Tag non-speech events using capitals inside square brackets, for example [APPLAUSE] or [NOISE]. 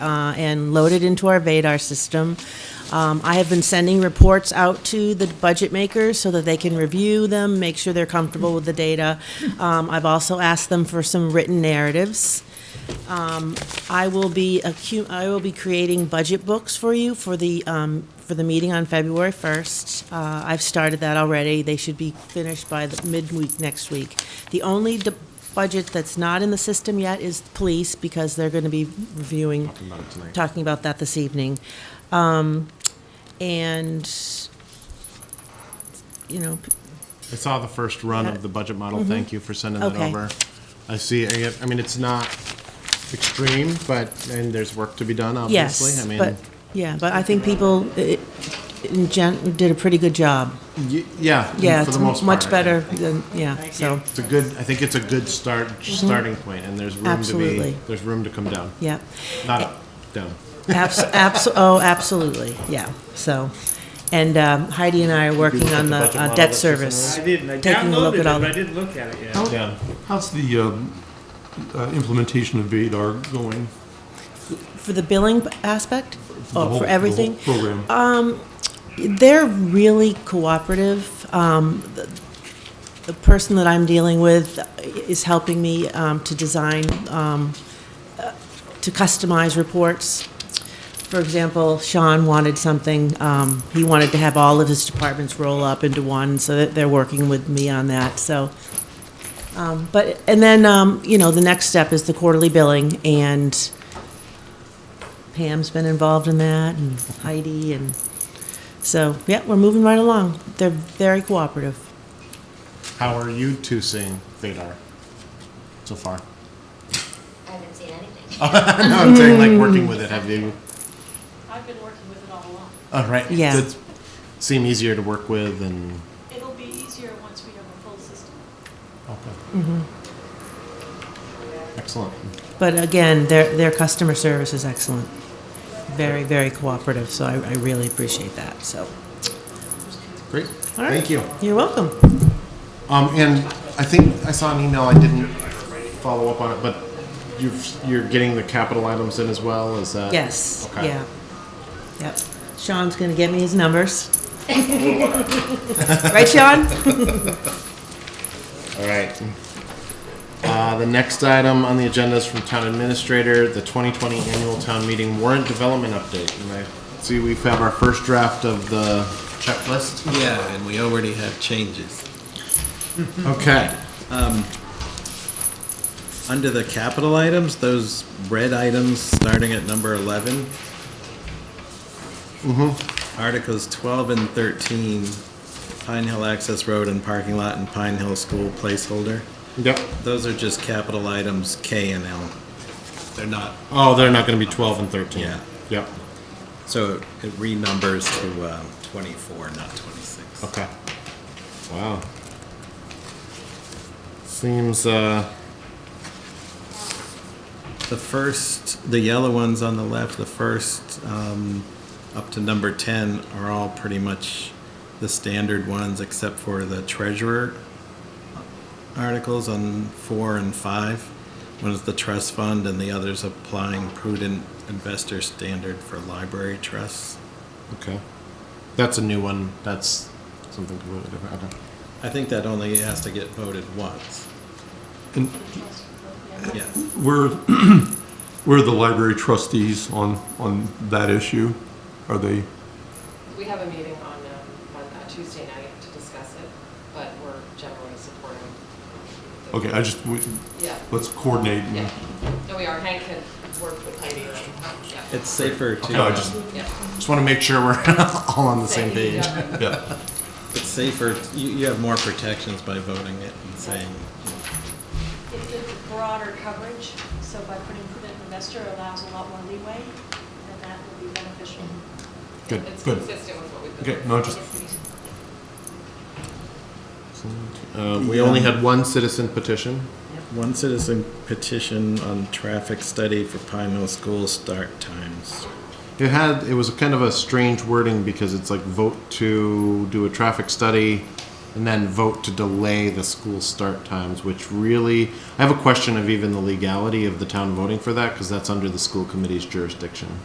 uh, and load it into our VADAR system. Um, I have been sending reports out to the budget makers so that they can review them, make sure they're comfortable with the data. Um, I've also asked them for some written narratives. I will be accu- I will be creating budget books for you for the um, for the meeting on February first. Uh, I've started that already. They should be finished by the midweek next week. The only de- budget that's not in the system yet is police because they're going to be reviewing talking about, that this evening, um, and you know. p- I saw the first run of the budget model. Thank you for sending that Mm-hmm. Okay. over. I see, I I mean, it's not extreme, but, and there's work to be done, obviously. Yes, I mean, but yeah, but I think people i in gen- did a pretty good job. y- Yeah. Yeah, for it's the most much part. better than yeah. so. It's a good, I think it's a good start, starting point, and there's room to be, Mm-hmm. Absolutely. there's room to come down. Yeah, Not up, down. abs- abs- oh, absolutely, yeah, so, and um, Heidi and I are working on the budget uh, model debt that's service. I didn't, I Taking a look at downloaded it, all but the- I didn't look at it yet. Down. How's the um, uh, implementation of VADAR going? For the billing aspect, The whole- oh, for the whole everything, Uh, Program. they're really cooperative. Um, the- The person that I'm dealing with is helping me um, to design, um, uh, to customize reports. For example, Sean wanted something, um, he wanted to have all of his departments roll up into one, so that they're working with me on that, so. um, But, and then, um, you know, the next step is the quarterly billing, and Pam's been involved in that, and Heidi, and so, yeah, we're moving right along. They're very cooperative. How are you two seeing Vadar so far? [LAUGHS] I haven't seen anything. No, I'm saying like working with it, have you? I've been working with it all along. Oh, right. Mm. Yeah. Does it Seem easier to work with and, It'll be easier once we have a full system. okay. Mm-hmm. Excellent. But again, their, their customer service is excellent. Very, very cooperative, so I, I really appreciate that, so. Great. All right. Thank you. You're welcome. Um, and I think I saw an email, I didn't follow up on it, but you've, you're getting the capital items in as well, is that? Yes, Okay. yeah. Yep. Sean's gonna get me his numbers. Right, Sean? All right. Uh, the next item on the agenda is from Town Administrator, the 2020 Annual Town Meeting Warrant Development Update. And I see we have our first draft of the checklist. Yeah, and we already have changes. Mm-hmm. Okay. Under the capital items, those red items starting at number 11. Articles 12 and 13, Pine Hill Access Road and Parking Lot and Pine Hill School placeholder. Yep. Those are just capital items K and L. They're not, Oh, they're not going to be 12 and 13. Yeah. Yep. so it renumbers to um, 24, not 26. Okay. Wow. Seems, uh, The first, the yellow ones on the left, the first um, up to number 10 are all pretty much the standard ones except for the treasurer articles on four and five. One is the trust fund and the other's applying prudent investor standard for library trusts. okay. That's a new one. That's something completely different. Okay. I think that only has to get voted once. And Yeah. where, [CLEARS THROAT] where are the library trustees on, on that issue? Are they, We have a meeting on, um, on uh, Tuesday night to discuss it, but we're generally supporting. the- okay, I just, we- Yeah, let's coordinate. yeah. and- No, we are. Hank had worked with Heidi. and- yeah. It's safer to. No, I just, Yeah. Just want to make sure we're [LAUGHS] all on the same page. Yeah. yeah, It's safer, you, you have more protections by voting it and saying, It gives broader coverage, so by putting prudent investor allows a lot more leeway, and that will be beneficial. [LAUGHS] good, It's good. consistent with what we've been. Okay, no, just, Uh, we only had one citizen petition. One citizen petition on traffic study for Pine Hill School start times. It had it was kind of a strange wording because it's like vote to do a traffic study and then vote to delay the school start times, which really, I have a question of even the legality of the town voting for that, because that's under the school committee's jurisdiction.